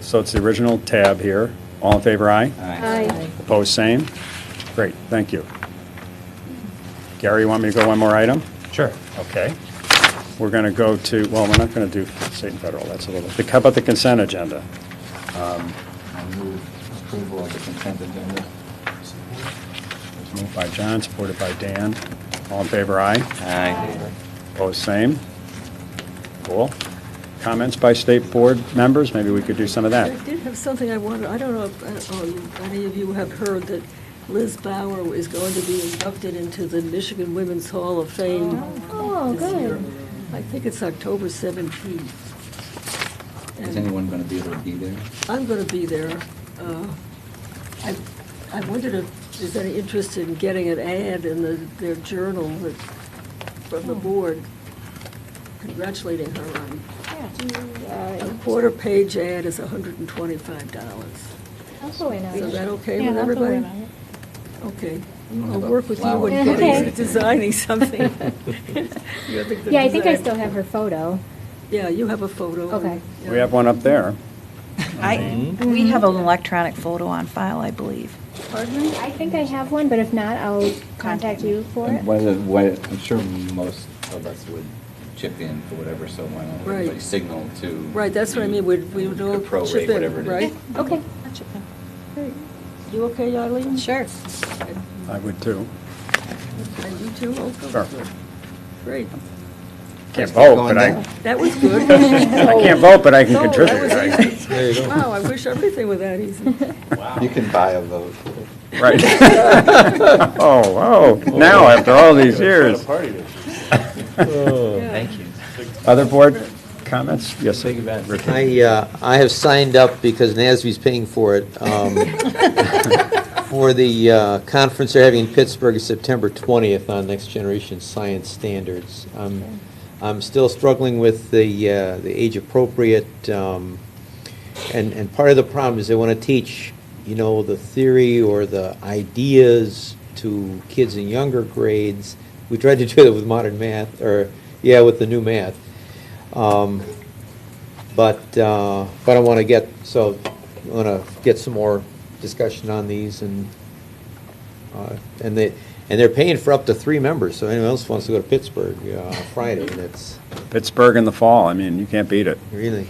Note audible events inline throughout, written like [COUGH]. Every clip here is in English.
So it's the original tab here. All in favor, aye? Aye. Opposed, same? Great, thank you. Gary, you want me to go one more item? Sure. Okay. We're going to go to, well, we're not going to do state and federal, that's a little, how about the consent agenda? I move approval of the consent agenda. It's Moved by John, supported by Dan. All in favor, aye? Aye. Opposed, same? Cool. Comments by state board members? Maybe we could do some of that. I did have something I wanted, I don't know if uh, um, any of you have heard that Liz Bauer is going to be inducted into the Michigan Women's Hall of Fame Oh, this year. good. I think it's October 17th. Is And- anyone going to be able to be there? I'm going to be there. Uh, I I wondered if there's any interest in getting an ad in the- their journal that- from the Hmm. board congratulating her on. Yeah, do you, A uh, quarter-page ad is $125. I'll go in on Is it. that uh, okay Yeah, with I'll go everybody? in on it. Okay. don't I'll have a work with you flower and Okay. getting, [LAUGHS] [LAUGHS] designing something. You're the Yeah, I think I designer. still have her photo. Yeah, you have a photo. Okay. Yeah. We have one up there. I, we have an electronic photo on file, I believe. Pardon me? I think I have one, but if not, I'll Contact contact me. you for it. And whether, what, I'm sure most of us would chip in for whatever, so why don't Right. everybody signal to. Right, that's what I mean, we'd- we would you all could prorate chip in, whatever it is. [LAUGHS] right? Okay. You okay, Eileen? Sure. I would too. And you too? Okay. Sure. Great. Can't vote, Going but I, down. That was [LAUGHS] good. I can't vote, but I can No, that contribute. was right? easy. Wow, I wish everything were that easy. [LAUGHS] You can buy a vote. Right. [LAUGHS] Oh, oh, now after all these years. Oh, Thank you. Other board comments? Yes, sir. I, uh, I have signed up because NASB's paying for it, um, for the uh, conference they're having in Pittsburgh, September 20th on next generation science standards. Um, I'm still struggling with the, uh, the age-appropriate, um, and, and part of the problem is they want to teach, you know, the theory or the ideas to kids in younger grades. We tried to do that with modern math, or, yeah, with the new math. Um, but, uh, but I want to get, so, I want to get some more discussion on these and, uh, and they, and they're paying for up to three members, so anyone else wants to go to Pittsburgh uh, Friday, that's, Pittsburgh in the fall, I mean, you can't beat it. really.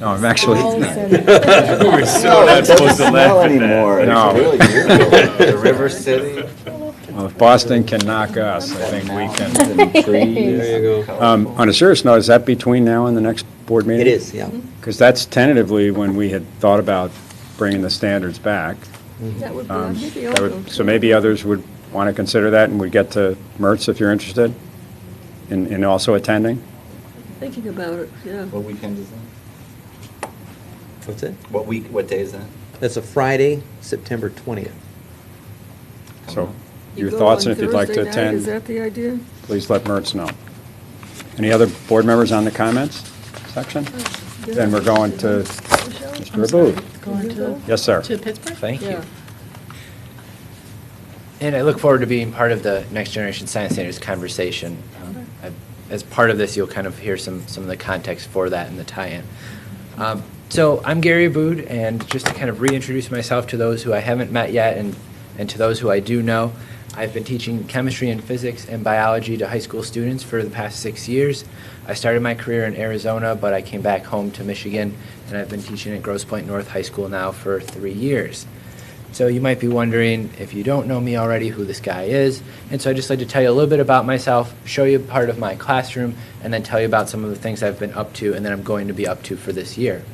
No, I'm actually, Oh. We're so not supposed to smell anymore. It's No. really weird. The River City. well, if Boston can knock us, I think we can. Mountains and trees. There you go. Um, On a serious note, is that between now and the next board meeting? It is, yeah. Because that's tentatively when we had thought about bringing the standards back. That would be, Um, I'd be that open would- to So it. maybe others would want to consider that, and we get to Mertz if you're interested in in also attending. Thinking about it, yeah. What weekend is that? What's it? What week, what day is that? That's a Friday, September 20th. So You your go thoughts, on and if you'd like to Thursday night, attend. Is that the idea? please let Mertz know. Any other board members on the comments section? Then we're going to Mr. Abud. Going to. Yes, sir. Pittsburgh? Thank you. Yeah. And I look forward to being part of the Next Generation Science Standards conversation. Um, I- As part of this, you'll kind of hear some, some of the context for that and the tie-in. Um, So I'm Gary Aboud, and just to kind of reintroduce myself to those who I haven't met yet and, and to those who I do know, I've been teaching chemistry and physics and biology to high school students for the past six years. I started my career in Arizona, but I came back home to Michigan, and I've been teaching at Grosse Pointe North High School now for three years. So you might be wondering, if you don't know me already, who this guy is. And so I'd just like to tell you a little bit about myself, show you part of my classroom, and then tell you about some of the things I've been up to and that I'm going to be up to for this year.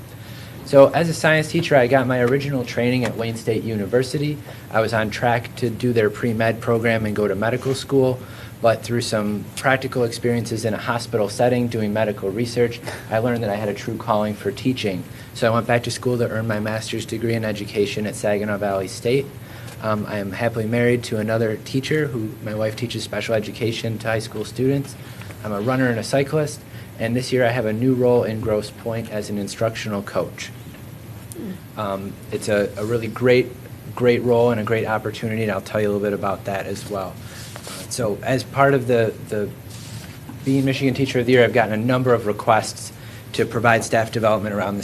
So as a science teacher, I got my original training at Wayne State University. I was on track to do their pre-med program and go to medical school, but through some practical experiences in a hospital setting doing medical research, I learned that I had a true calling for teaching. So I went back to school to earn my master's degree in education at Saginaw Valley State. Um, I am happily married to another teacher who my wife teaches special education to high school students. I'm a runner and a cyclist, and this year I have a new role in Grosse Pointe as an instructional coach. Um, it's a, a really great, great role and a great opportunity, and I'll tell you a little bit about that as well. Uh, So, as part of the, the being Michigan Teacher of the Year, I've gotten a number of requests to provide staff development around the